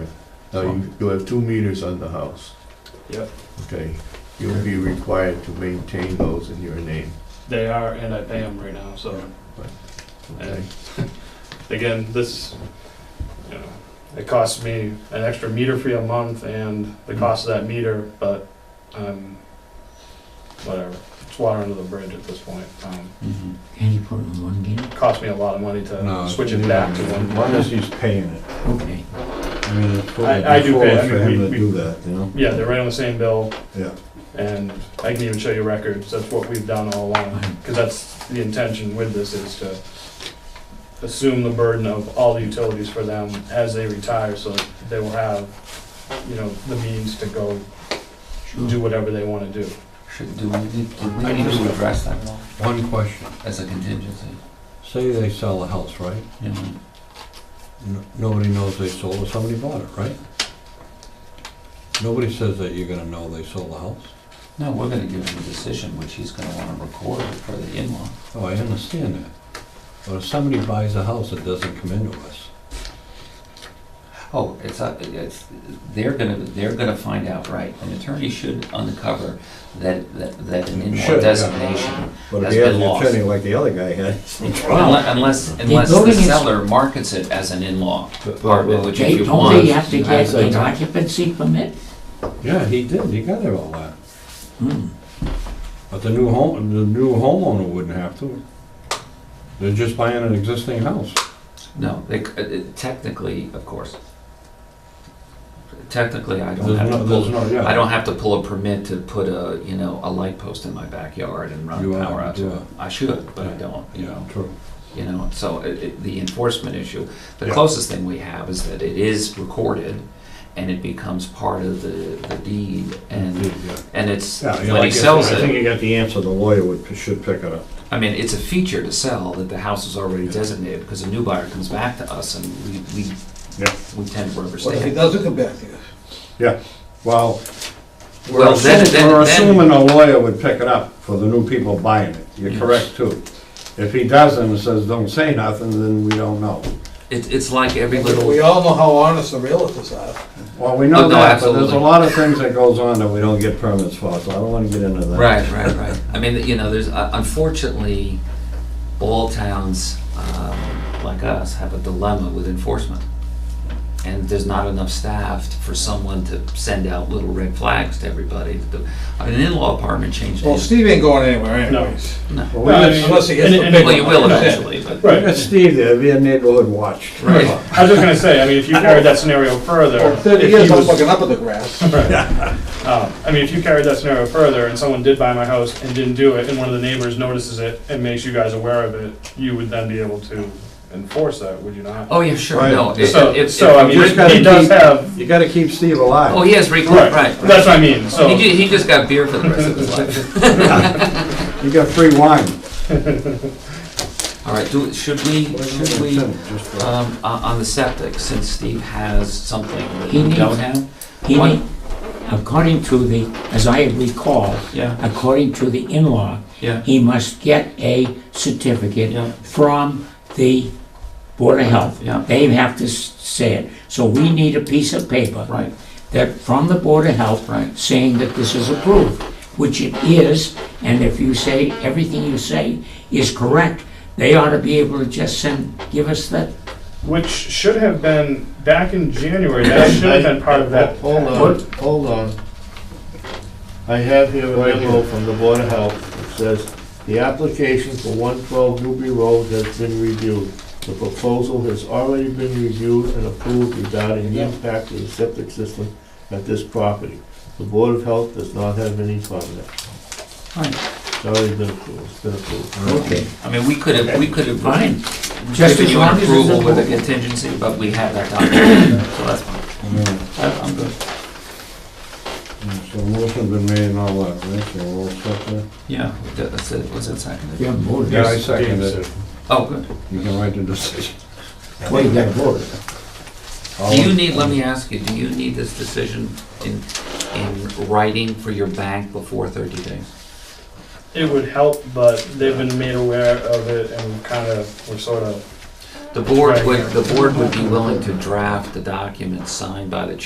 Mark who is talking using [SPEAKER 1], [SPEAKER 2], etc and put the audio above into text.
[SPEAKER 1] Now, you, you have two meters on the house.
[SPEAKER 2] Yep.
[SPEAKER 1] Okay, you'll be required to maintain those in your name,
[SPEAKER 2] They are, and I pay them right now, so,
[SPEAKER 1] okay?
[SPEAKER 2] again, this, you know, it costs me an extra meter fee a month and the cost of that meter, but, um, whatever, it's water under the bridge at this point. Um,
[SPEAKER 3] Mhm. Can you put it on one gate?
[SPEAKER 2] it cost me a lot of money
[SPEAKER 4] No,
[SPEAKER 2] to switch it back to one.
[SPEAKER 4] One is he's paying it.
[SPEAKER 3] Okay.
[SPEAKER 4] I mean, it's totally
[SPEAKER 2] I- I do pay. I
[SPEAKER 4] foolish for
[SPEAKER 2] mean, we-
[SPEAKER 4] him to
[SPEAKER 2] we-
[SPEAKER 4] do that, you know?
[SPEAKER 2] Yeah, they're right on the same bill.
[SPEAKER 4] Yeah.
[SPEAKER 2] And I can even show you records, that's what we've done all along, because that's the intention with this, is to assume the burden of all the utilities for them as they retire, so that they will have, you know, the means to go do
[SPEAKER 3] Sure.
[SPEAKER 2] whatever they want to do.
[SPEAKER 5] Should, do we, need- do we
[SPEAKER 2] I
[SPEAKER 5] need
[SPEAKER 2] just-
[SPEAKER 5] to address that at all,
[SPEAKER 4] One question.
[SPEAKER 5] as a contingency?
[SPEAKER 4] Say they sell a house, right?
[SPEAKER 5] You know,
[SPEAKER 4] N- Nobody knows they sold it, somebody bought it, right? Nobody says that you're gonna know they sold the house.
[SPEAKER 5] no, we're gonna give him a decision, which he's gonna wanna record for the in-law.
[SPEAKER 4] Oh, I understand that. But if somebody buys a house that doesn't come into us,
[SPEAKER 5] Oh, it's, uh, it's, they're gonna, they're gonna find out, right, an attorney should uncover that, that, that an in-law
[SPEAKER 4] Should, yeah.
[SPEAKER 5] designation.
[SPEAKER 6] But if
[SPEAKER 5] has
[SPEAKER 6] he has
[SPEAKER 5] been
[SPEAKER 6] an
[SPEAKER 5] lost.
[SPEAKER 6] attorney like the other guy had,
[SPEAKER 5] Unle- Unless, unless the
[SPEAKER 3] building is-
[SPEAKER 5] seller markets it as an in-law
[SPEAKER 6] But- but-
[SPEAKER 5] apartment, which
[SPEAKER 3] They
[SPEAKER 5] if you
[SPEAKER 3] told me
[SPEAKER 5] want.
[SPEAKER 3] you have to
[SPEAKER 5] you have
[SPEAKER 3] get
[SPEAKER 5] to-
[SPEAKER 3] an occupancy permit?
[SPEAKER 4] yeah, he did, he got it all that.
[SPEAKER 3] Hmm.
[SPEAKER 4] But the new home, the new homeowner wouldn't have to. They're just buying an existing house.
[SPEAKER 5] No, they, c- uh, uh, technically, of course. Technically, I don't
[SPEAKER 4] There's
[SPEAKER 5] have to
[SPEAKER 4] no,
[SPEAKER 5] pull
[SPEAKER 4] there's no, yeah.
[SPEAKER 5] I don't have to pull a permit to put a, you know, a light post in my backyard and run
[SPEAKER 4] You are,
[SPEAKER 5] power out
[SPEAKER 4] you
[SPEAKER 5] to it. I should, but I don't, you
[SPEAKER 4] Yeah,
[SPEAKER 5] know,
[SPEAKER 4] true.
[SPEAKER 5] you know, so it, it, the enforcement issue. The
[SPEAKER 4] Yeah.
[SPEAKER 5] closest thing we have is that it is recorded and it becomes part of the, the deed and,
[SPEAKER 4] Yeah.
[SPEAKER 5] and it's,
[SPEAKER 4] Mm-hmm. Yeah, you know,
[SPEAKER 5] when
[SPEAKER 4] I
[SPEAKER 5] he
[SPEAKER 4] guess-
[SPEAKER 5] sells
[SPEAKER 6] I think
[SPEAKER 5] it,
[SPEAKER 6] you got the answer, the lawyer would, should pick it up.
[SPEAKER 5] I mean, it's a feature to sell that the house is already designated because a new buyer comes back to us and we, we,
[SPEAKER 4] Yeah.
[SPEAKER 5] we tend to
[SPEAKER 7] What if he
[SPEAKER 5] overstay.
[SPEAKER 7] doesn't come back to you?
[SPEAKER 4] Well, we're
[SPEAKER 5] Well, then-
[SPEAKER 4] assuming,
[SPEAKER 5] then-
[SPEAKER 4] we're
[SPEAKER 5] then-
[SPEAKER 4] assuming a lawyer would pick it up for the new people buying it. You're
[SPEAKER 5] Yes.
[SPEAKER 4] correct too. If he doesn't and says, don't say nothing, then we don't know.
[SPEAKER 5] It, it's like every little.
[SPEAKER 7] We all know how honest the realtors are.
[SPEAKER 4] Well, we
[SPEAKER 5] Oh,
[SPEAKER 4] know
[SPEAKER 5] no,
[SPEAKER 4] that, but there's a
[SPEAKER 5] absolutely.
[SPEAKER 4] lot of things that goes on that
[SPEAKER 6] We
[SPEAKER 4] we don't
[SPEAKER 6] don't get permits for it, so I don't wanna get into that.
[SPEAKER 5] Right, right, right. I mean, you know, there's, uh, unfortunately, all towns um, like us have a dilemma with enforcement. And there's not enough staff for someone to send out little red flags to everybody. The- An in-law apartment changed
[SPEAKER 7] Well,
[SPEAKER 5] hands.
[SPEAKER 7] Steve ain't going anywhere
[SPEAKER 2] No.
[SPEAKER 7] anyways.
[SPEAKER 4] Well, we
[SPEAKER 2] Well,
[SPEAKER 4] got-
[SPEAKER 7] Unless he gets
[SPEAKER 2] and-
[SPEAKER 7] the
[SPEAKER 2] and-
[SPEAKER 7] big
[SPEAKER 5] Well, you will
[SPEAKER 7] one.
[SPEAKER 5] eventually, but.
[SPEAKER 2] Right.
[SPEAKER 6] We got Steve there, it'd be a neighborhood watch.
[SPEAKER 5] Right.
[SPEAKER 2] I was just gonna say, I mean, if you carried that scenario further.
[SPEAKER 7] For
[SPEAKER 2] if
[SPEAKER 7] thirty
[SPEAKER 2] he
[SPEAKER 7] years, I'm
[SPEAKER 2] was-
[SPEAKER 7] looking up at the grass.
[SPEAKER 2] Um, I mean, if you carried that scenario further and someone did buy my house and didn't do it, and one of the neighbors notices it and makes you guys aware of it, you would then be able to enforce that, would you not?
[SPEAKER 5] Oh, yeah, sure,
[SPEAKER 6] Right.
[SPEAKER 5] no. it-
[SPEAKER 2] So-
[SPEAKER 5] it- it-
[SPEAKER 2] so, I mean,
[SPEAKER 6] You just gotta
[SPEAKER 2] He does
[SPEAKER 6] keep-
[SPEAKER 2] have-
[SPEAKER 6] You gotta keep Steve alive.
[SPEAKER 5] Oh, he has recourse, right.
[SPEAKER 2] That's what I mean, so.
[SPEAKER 5] He ju- he just got beer for the rest of his life.
[SPEAKER 6] You got free wine.
[SPEAKER 5] All right, do, should we, should we?
[SPEAKER 6] Just
[SPEAKER 4] uh,
[SPEAKER 6] for-
[SPEAKER 5] Um, on on the septic, since Steve has something that
[SPEAKER 3] He
[SPEAKER 5] you don't
[SPEAKER 3] needs-
[SPEAKER 5] have?
[SPEAKER 3] He
[SPEAKER 5] What-
[SPEAKER 3] may, according to the, as I recall,
[SPEAKER 5] Yeah,
[SPEAKER 3] according to the in-law,
[SPEAKER 5] yeah,
[SPEAKER 3] he must get a certificate
[SPEAKER 5] Yeah.
[SPEAKER 3] from the Board of Health.
[SPEAKER 5] Yeah.
[SPEAKER 3] They have to s- say it. So we need a piece of paper
[SPEAKER 5] right,
[SPEAKER 3] that, from the Board of Health,
[SPEAKER 5] right.
[SPEAKER 3] saying that this is approved, which it is, and if you say, everything you say is correct, they ought to be able to just send, give us that.
[SPEAKER 2] Which should have been back in January, that should have been part of that. uh,
[SPEAKER 1] Hold on, hold on. I have here a memo from the Board of Health. It says, "The application for 112 Newbury Road has been reviewed. The proposal has already been reviewed and approved regarding the impact of the septic system at this property. The Board of Health does not have any comment."
[SPEAKER 5] Fine.
[SPEAKER 1] It's already been approved, it's been approved.
[SPEAKER 3] Okay.
[SPEAKER 5] I mean, we could have, we could have.
[SPEAKER 3] Fine. Just
[SPEAKER 5] Given
[SPEAKER 3] as
[SPEAKER 5] you
[SPEAKER 3] long
[SPEAKER 5] an
[SPEAKER 3] as it's
[SPEAKER 5] approval with a
[SPEAKER 3] approved.
[SPEAKER 5] contingency, but we have that document, so that's fine. I- I'm good.
[SPEAKER 4] So motion's been made and all that, right? So we're all set there?
[SPEAKER 5] Yeah, that- that's it, was it seconded?
[SPEAKER 3] Yeah, voted.
[SPEAKER 4] Yeah, I second
[SPEAKER 2] James
[SPEAKER 4] it.
[SPEAKER 5] Oh, good.
[SPEAKER 4] You can write the decision.
[SPEAKER 3] Well, you gotta vote.
[SPEAKER 4] All
[SPEAKER 5] Do you
[SPEAKER 4] in-
[SPEAKER 5] need, let me ask you, do you need this decision in, in writing for your bank before thirty days?
[SPEAKER 2] It would help, but they've been made aware of it and kind of, we're sort of
[SPEAKER 5] The board
[SPEAKER 2] Right.
[SPEAKER 5] would, the board would be willing to draft the document signed by the